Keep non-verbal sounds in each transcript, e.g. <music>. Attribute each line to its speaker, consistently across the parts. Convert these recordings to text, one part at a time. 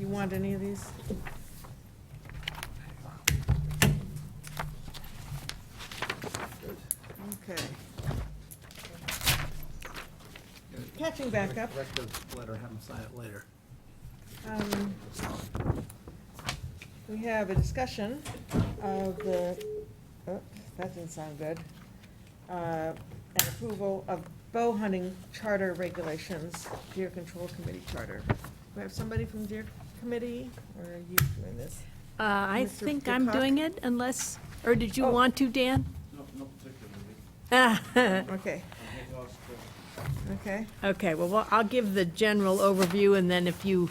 Speaker 1: You want any of these? Okay. Catching back up.
Speaker 2: Correct the letter, have them sign it later.
Speaker 1: Um, We have a discussion of the, oh, that didn't sound good. Uh, An approval of bow hunting charter regulations, deer control committee charter. Do we have somebody from deer committee, or are you doing this?
Speaker 3: Uh, I
Speaker 1: Mr.
Speaker 3: think I'm
Speaker 1: Peacock?
Speaker 3: doing it unless, or did you
Speaker 1: Oh.
Speaker 3: want to, Dan? <laughs>
Speaker 4: No, not particularly.
Speaker 3: Ah,
Speaker 1: Okay,
Speaker 4: I had asked, uh,
Speaker 1: okay.
Speaker 3: Okay, well, well, I'll give the general overview and then if you,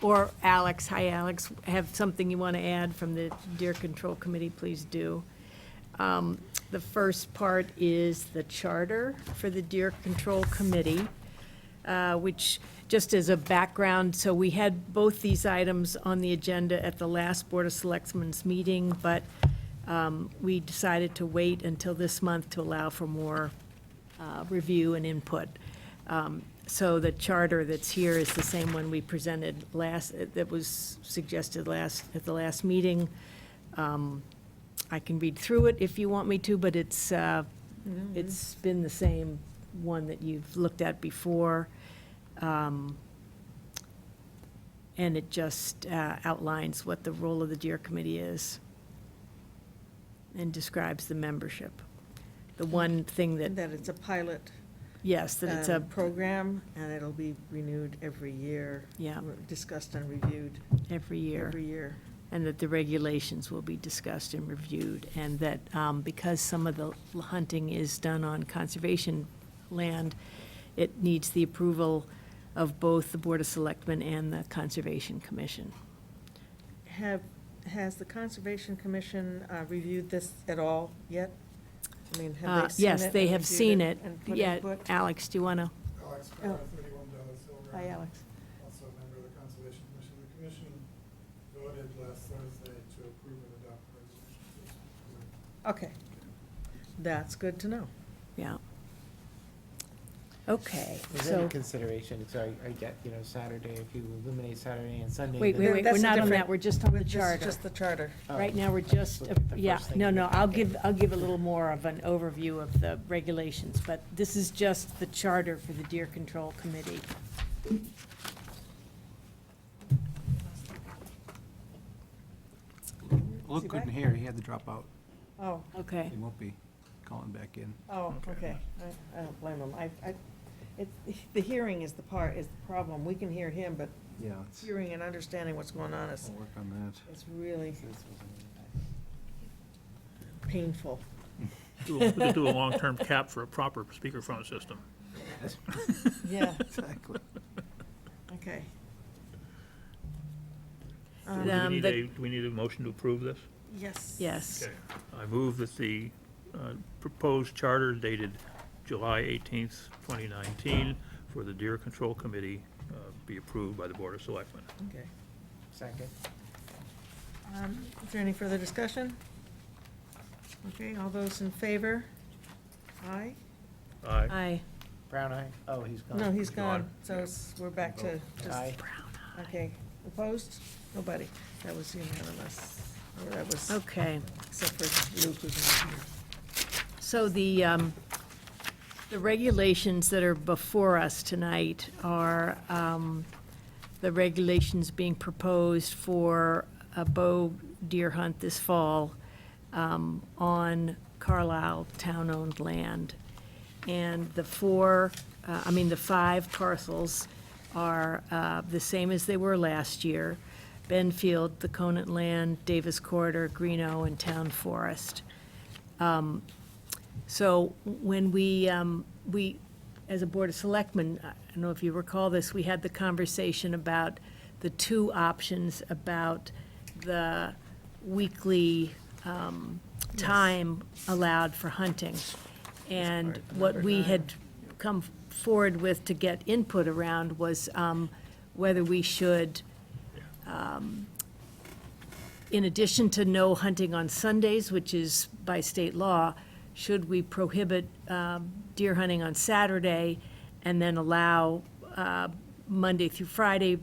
Speaker 3: or Alex, hi Alex, have something you want to add from the Deer Control Committee, please do. Um, The first part is the charter for the Deer Control Committee, uh, which, just as a background, so we had both these items on the agenda at the last Board of Selectmen's meeting, but um, we decided to wait until this month to allow for more uh, review and input. Um, So the charter that's here is the same one we presented last, that was suggested last, at the last meeting. Um, I can read through it if you want me to, but it's, uh, it's been the same one that you've looked at before. Um, And it just uh, outlines what the role of the Deer Committee is and describes the membership. The one thing that,
Speaker 1: That it's a pilot
Speaker 3: yes, that it's a
Speaker 1: um, program, and it'll be renewed every year.
Speaker 3: Yeah.
Speaker 1: re- Discussed and reviewed
Speaker 3: every year,
Speaker 1: every year.
Speaker 3: and that the regulations will be discussed and reviewed, and that um, because some of the hunting is done on conservation land, it needs the approval of both the Board of Selectmen and the Conservation Commission.
Speaker 1: Have, has the Conservation Commission uh, reviewed this at all yet? I mean, have
Speaker 3: Uh,
Speaker 1: they seen it?
Speaker 3: Yes, they
Speaker 1: and
Speaker 3: have
Speaker 1: reviewed
Speaker 3: seen it.
Speaker 1: and put
Speaker 3: Yeah,
Speaker 1: input?
Speaker 3: Alex, do you want to?
Speaker 5: Alex
Speaker 1: Oh.
Speaker 5: Carr, thirty-one Dallas Hill
Speaker 1: Hi,
Speaker 5: Road,
Speaker 1: Alex.
Speaker 5: also a member of the Conservation Commission. The commission voted last Thursday to approve and adopt the resolution.
Speaker 1: Okay. That's good to know.
Speaker 3: Yeah. Okay,
Speaker 6: Is there
Speaker 3: so,
Speaker 6: any consideration, sorry, I get, you know, Saturday, if you eliminate Saturday and Sunday.
Speaker 3: wait,
Speaker 6: then-
Speaker 3: wait, wait,
Speaker 1: That's
Speaker 3: we're
Speaker 1: a
Speaker 3: not on that,
Speaker 1: different-
Speaker 3: we're just on the
Speaker 1: This is
Speaker 3: charter.
Speaker 1: Just the charter.
Speaker 6: Oh,
Speaker 3: Right now, we're
Speaker 6: I was
Speaker 3: just,
Speaker 6: looking at the
Speaker 3: yeah,
Speaker 6: first thing
Speaker 3: no,
Speaker 6: in
Speaker 3: no,
Speaker 6: the
Speaker 3: I'll
Speaker 6: packet.
Speaker 3: give, I'll give a little more of an overview of the regulations, but this is just the charter for the Deer Control Committee.
Speaker 1: he
Speaker 2: Luke couldn't
Speaker 1: back?
Speaker 2: hear, he had to drop out.
Speaker 1: Oh,
Speaker 3: Okay,
Speaker 2: He won't be calling back in.
Speaker 1: oh, okay. I, I don't blame him. I, I, it, the hearing is the part, is the problem. We can hear him, but
Speaker 2: Yeah, let's,
Speaker 1: hearing and understanding what's going on is,
Speaker 2: we'll work on
Speaker 1: is really painful.
Speaker 2: <laughs>
Speaker 7: Do a- Just do a long-term cap for a proper speakerphone system.
Speaker 1: Yeah,
Speaker 2: that. Exactly.
Speaker 1: okay.
Speaker 7: Do
Speaker 1: Um,
Speaker 7: we
Speaker 3: Um,
Speaker 7: need
Speaker 3: the-
Speaker 7: a, do we need a motion to approve this?
Speaker 1: Yes.
Speaker 3: yes,
Speaker 7: I move that the uh, proposed charter dated July 18th, 2019, for the Deer Control Committee uh, be approved by the Board of Selectmen.
Speaker 1: Okay.
Speaker 6: Second.
Speaker 1: Um, Is there any further discussion? Okay, all those in favor? Aye?
Speaker 7: Aye.
Speaker 3: aye.
Speaker 6: Brown eye, oh, he's gone.
Speaker 1: No, he's
Speaker 7: Aye.
Speaker 1: gone, so it's, we're back to just,
Speaker 6: Aye.
Speaker 1: okay. Opposed? Nobody. That was unanimous. Or that was,
Speaker 3: Okay,
Speaker 1: except for Luke who's not here.
Speaker 3: so the, um, the regulations that are before us tonight are, um, the regulations being proposed for a bow deer hunt this fall, um, on Carlisle town-owned land. And the four, uh, I mean, the five parcels are uh, the same as they were last year. Benfield, the Conant Land, Davis Corridor, Greeno, and Town Forest. Um, So when we, um, we, as a Board of Selectmen, I don't know if you recall this, we had the conversation about the two options about the weekly um, time allowed for hunting. And what we had come forward with to get input around was um, whether we should, um, in addition to no hunting on Sundays, which is by state law, should we prohibit um, deer hunting on Saturday and then allow uh, Monday through Friday